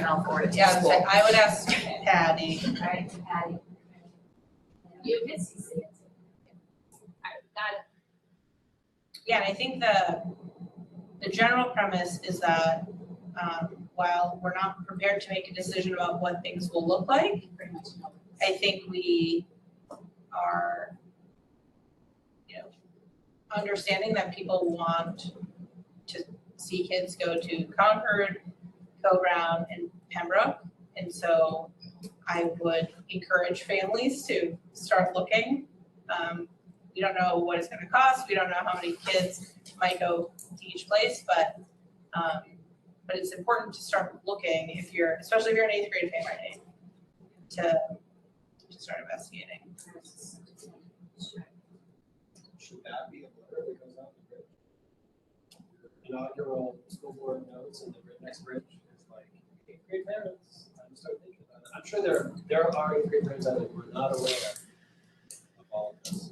and I'll forward it to Yeah, school. I would ask Patty. Right, Patty. You can see it. I got it. Yeah, and I think the, the general premise is that, um, while we're not prepared to make a decision about what things will look like, Pretty much know. I think we are, you know, understanding that people want to see kids go to Concord, Co-Brown, and Pembroke. And so I would encourage families to start looking. Um, we don't know what it's gonna cost, we don't know how many kids might go to each place, but, um, but it's important to start looking if you're, especially if you're an eighth grade family, to to start investigating. Should that be a letter that goes out the bridge? Inaugural school board notes and the bri- next bridge is like, eighth grade parents, I'm start thinking about it. I'm sure there, there are eighth grade parents out there who are not aware of all of this.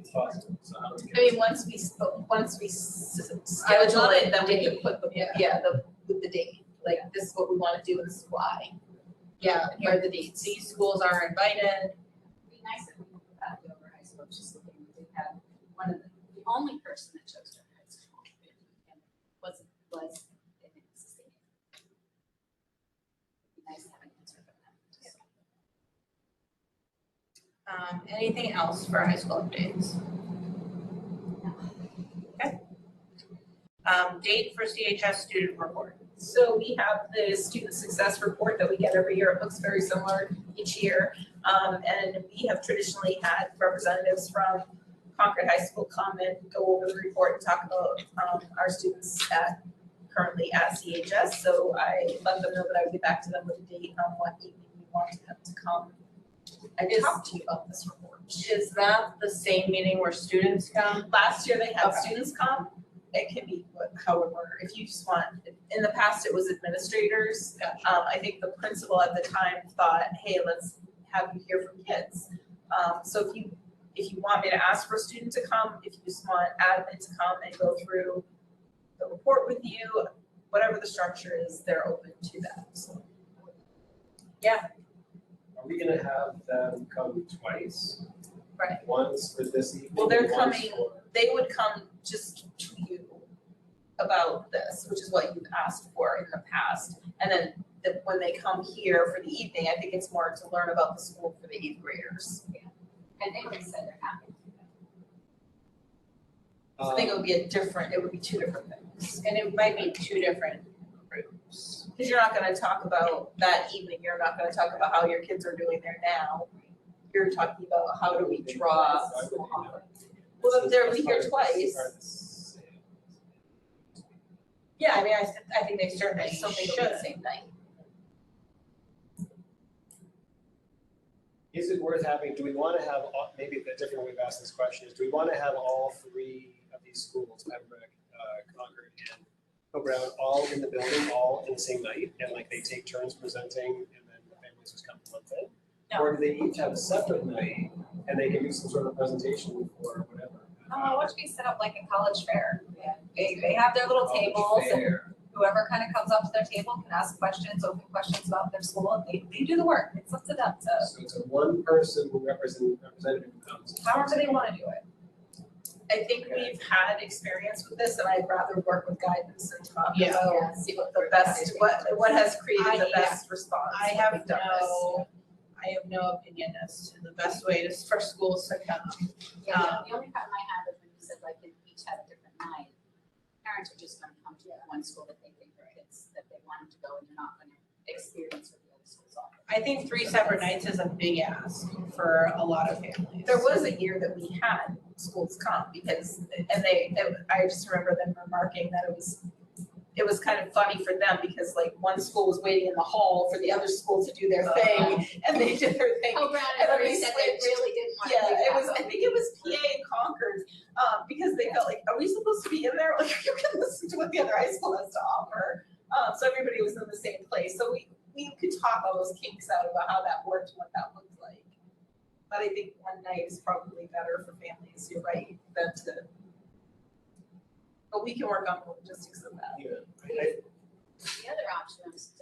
It's possible, so how do we I get? mean, once we, sp- once we s- I would schedule love it, then we date. can put the, Yeah. yeah, the, with the date, like, this is what we wanna do and this is why. Yeah, And here are the dates. these schools are invited. Be nice if we could put that over high school, just looking, we did have one of the, the only person that chose Dover High School. and Was, was an existing. Be nice to have an answer from them. just- Um, anything else for high school updates? Okay. Um, date for CHS student report. So we have the student success report that we get every year. It looks very similar each year. Um, and we have traditionally had representatives from Concord High School come and go over the report and talk about, um, our students at, currently at CHS. So I let them know that I would get back to them with a date on what evening we wanted them to come and Is- talk to you about this report. Is that the same meeting where students come? Last year they had Okay. students come, it can be what- however, if you just want, in the past it was administrators. Um, I think the principal at the time thought, hey, let's have you hear from kids. Um, so if you, if you want me to ask for a student to come, if you just want admin to come and go through the report with you, whatever the structure is, they're open to that, so. Are we gonna have them come twice? Right. Once for this evening, Well, they're once coming- for- they would come just to you about this, which is what you've asked for in the past. And then the, when they come here for the evening, I think it's more to learn about the school for the eighth graders. And they would say they're happy. So I think it um, would be a different, it would be two different things. And it might be two different groups. Cause you're not gonna talk about that evening, you're not gonna talk about how your kids are doing there now. You're talking about how do we draw. Why would they not? Well, if they're This is here part of twice. this- part of this sale. Yeah, I mean, I, s- I think they certainly There's something should. on the same night. Is it worth having, do we want to have, all- maybe a different way of asking this question is, do we want to have all three of these schools, Pembroke, uh, Concord, and Co-Brown, all in the building, all in the same night? And like they take turns presenting and then the families just come to one thing? No. Or do they each have a separate night and they can do some sort of presentation or whatever? Oh, why don't you set up like a college fair? They, they have their little tables and whoever kind of comes up to their table can ask questions, open questions about their school, and they, they do the work, it's up to them to, So it's a one person who represent, representative who comes. however they wanna do it. I think Okay. we've had experience with this and I'd rather work with guidance and talk Yeah. about See what the best, what, what has I- created the yeah. best response. I when have we've done this. no, I have no opinion as to the best way to, for schools to come. Yeah, the only problem I had was when you said like they each have a different night. Parents are just gonna come to the one school that they think their kids, that they want them to go and they're not gonna experience what the other schools offer. I think three separate nights is a big ask for a lot of families. There was a year that we had schools come because, and they, I just remember them remarking that it was, it was kind of funny for them because like one school was waiting in the hall for the other school to do their Uh-huh. Um, thing and they did their thing. Oh, Brown And and then they Marie said they switched. really didn't wanna do Yeah, that. it was, I think it was PA and Concord, um, because they felt like, are we supposed to be in there? Like, you can listen to what the other high school has to offer. Um, so everybody was in the same place, so we, we could talk all those kinks out about how that worked, and what that looked like. But I think one night is probably better for families, you're right, than to. But we can work on the logistics of that. Yeah, I- I- The other option was